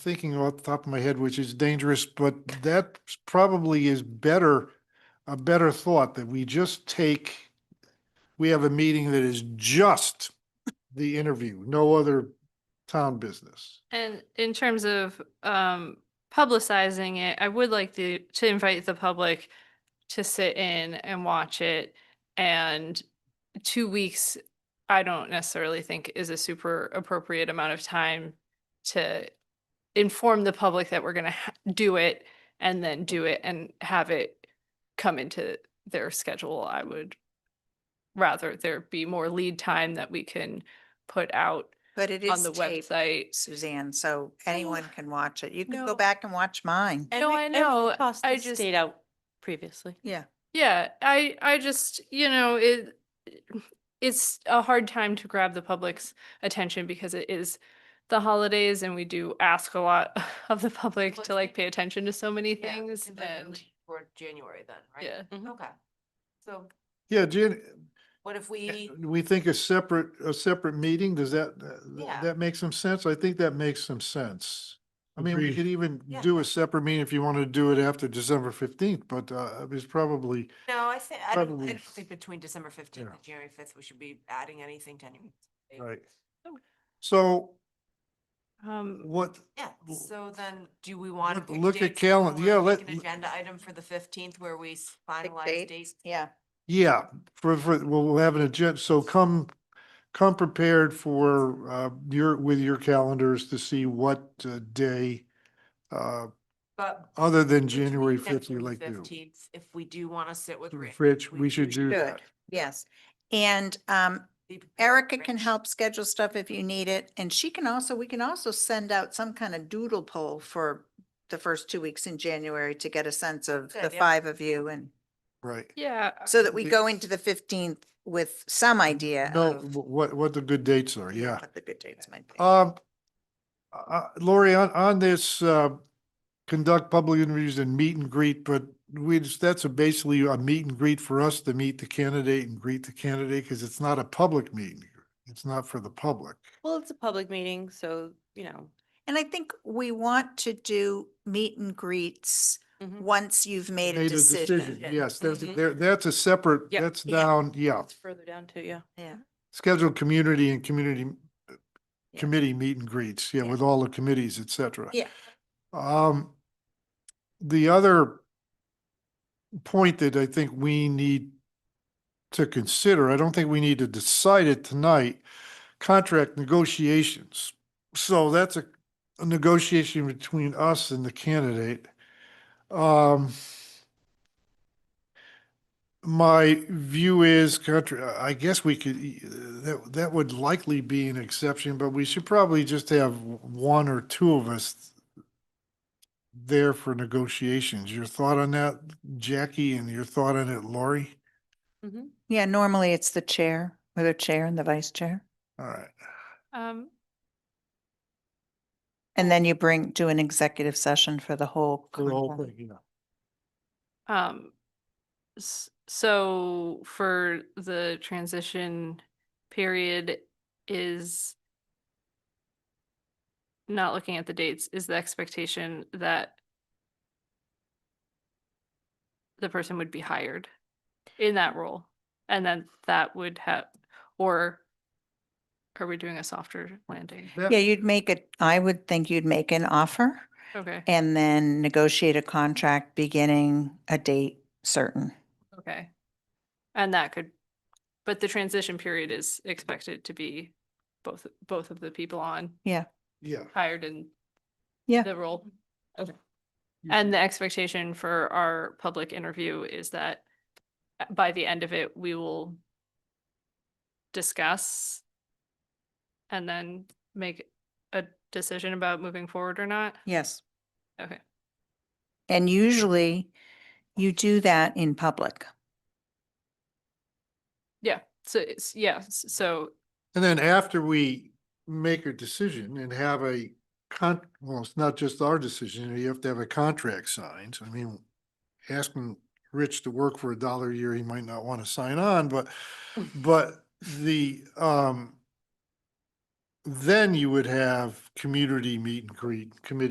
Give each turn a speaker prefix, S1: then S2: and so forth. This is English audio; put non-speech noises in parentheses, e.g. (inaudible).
S1: thinking off the top of my head, which is dangerous, but that probably is better, a better thought that we just take, we have a meeting that is just the interview, no other town business.
S2: And in terms of um publicizing it, I would like the to invite the public to sit in and watch it. And two weeks, I don't necessarily think is a super appropriate amount of time to inform the public that we're gonna ha- do it and then do it and have it come into their schedule. I would rather there be more lead time that we can put out
S3: But it
S2: on
S3: is
S2: the
S3: taped,
S2: website
S3: Suzanne, so anyone can watch it. You can
S4: no.
S3: go back and watch mine.
S4: And
S2: No,
S4: we-
S2: I
S4: and we
S2: know,
S4: tossed
S2: I
S4: this
S2: just-
S4: Date out previously.
S3: Yeah.
S2: Yeah, I I just, you know, it it's a hard time to grab the public's attention because it is the holidays and we do ask a lot (laughs) of the public
S5: Well,
S2: to
S5: I
S2: like
S5: think-
S2: pay attention to so many
S5: Yeah,
S2: things
S5: and then
S2: and
S5: leave For January then, right?
S2: yeah.
S4: Mhm.
S5: Okay. So
S1: Yeah, Jan,
S5: what if we,
S1: we think a separate, a separate meeting, does that,
S5: Yeah.
S1: that- that make some sense? I think that makes some sense. I mean, we
S6: Agreed.
S1: could even
S5: Yeah.
S1: do a separate meeting if you want to do it after December fifteenth, but uh, it's probably,
S5: no, I think, I don't, I
S1: Probably.
S5: don't think between December fifteenth
S1: Yeah.
S5: and January fifth, we should be adding anything to any.
S1: right.
S2: Oh.
S1: So
S2: Um,
S1: what,
S5: Yeah,
S1: Well,
S5: so then do we want? to
S1: look- look at calen- yeah, let-
S5: An agenda item for the fifteenth where we s- finalize
S3: date?
S5: dates.
S3: Yeah.
S1: Yeah, for, for, we'll, we'll have an agenda, so come, come prepared for, uh, your, with your calendars to see what uh, day, uh,
S5: But
S1: other than
S5: between
S1: January
S5: then
S1: fifth, we
S5: and the
S1: like to.
S5: 15th, If we do want to sit with Rich.
S1: Rich, we should do
S3: Good.
S1: that.
S3: Yes. And um,
S5: be prepared with
S3: Erica can
S5: Rich.
S3: help schedule stuff if you need it. And she can also, we can also send out some kind of doodle poll for the first two weeks in January to get a sense of
S5: Good
S3: the
S5: idea.
S3: five of you and
S1: Right.
S2: yeah,
S3: so that we
S1: The-
S3: go into the fifteenth with some idea
S1: No,
S3: of
S1: wh- what, what the good dates are, yeah.
S3: what the good dates might be.
S1: Um, uh, Lori, on, on this, uh, conduct public interviews and meet and greet, but we, just- that's a basically a meet and greet for us to meet the candidate and greet the candidate, because it's not a public meeting. It's not for the public.
S4: Well, it's a public meeting, so, you know.
S3: And I think we want to do meet and greets
S4: Mhm.
S3: once you've made a decision. Mm-hmm.
S1: Yes, that's,
S4: Mhm.
S1: there, that's a separate,
S4: Yep.
S1: that's
S4: Yeah.
S1: down, yeah.
S4: It's further down too, yeah.
S3: Yeah.
S1: Scheduled community and community uh,
S3: Yeah.
S1: committee meet and greets, yeah,
S3: Yeah.
S1: with all the committees, et cetera.
S3: Yeah.
S1: Um, the other point that I think we need to consider, I don't think we need to decide it tonight, contract negotiations. So that's a, a negotiation between us and the candidate. Um, my view is contra, I guess we could, e- that, that would likely be an exception, but we should probably just have one or two of us there for negotiations. Your thought on that, Jackie, and your thought on it, Lori?
S4: Mm-hmm.
S3: Yeah, normally it's the chair, or the chair and the vice chair.
S1: All right.
S2: um,
S3: And then you bring, do an executive session for the whole.
S1: for the whole
S3: contract.
S1: thing, yeah.
S2: um, s- so for the transition period is not looking at the dates, is the expectation that the person would be hired in that role? And then that would have, or are we doing a softer landing?
S1: That-
S3: Yeah, you'd make it, I would think you'd make an offer
S2: Okay,
S3: and then negotiate a contract beginning a date certain.
S2: okay. And that could, but the transition period is expected to be both, both of the people on
S1: Yeah.
S2: hired in
S3: Yeah.
S2: the role. Okay.
S1: Yeah.
S2: And the expectation for our public interview is that uh, by the end of it, we will discuss and then make a decision about moving forward or not.
S3: Yes.
S2: Okay.
S3: And usually you do that in public.
S2: Yeah. So it's, yeah. s- So
S1: And then after we make a decision and have a con, well, it's not just our decision, you have to have a contract signed. I mean, asking Rich to work for a dollar a year, he might not want to sign on, but, but the, um, then you would have community meet and greet, committee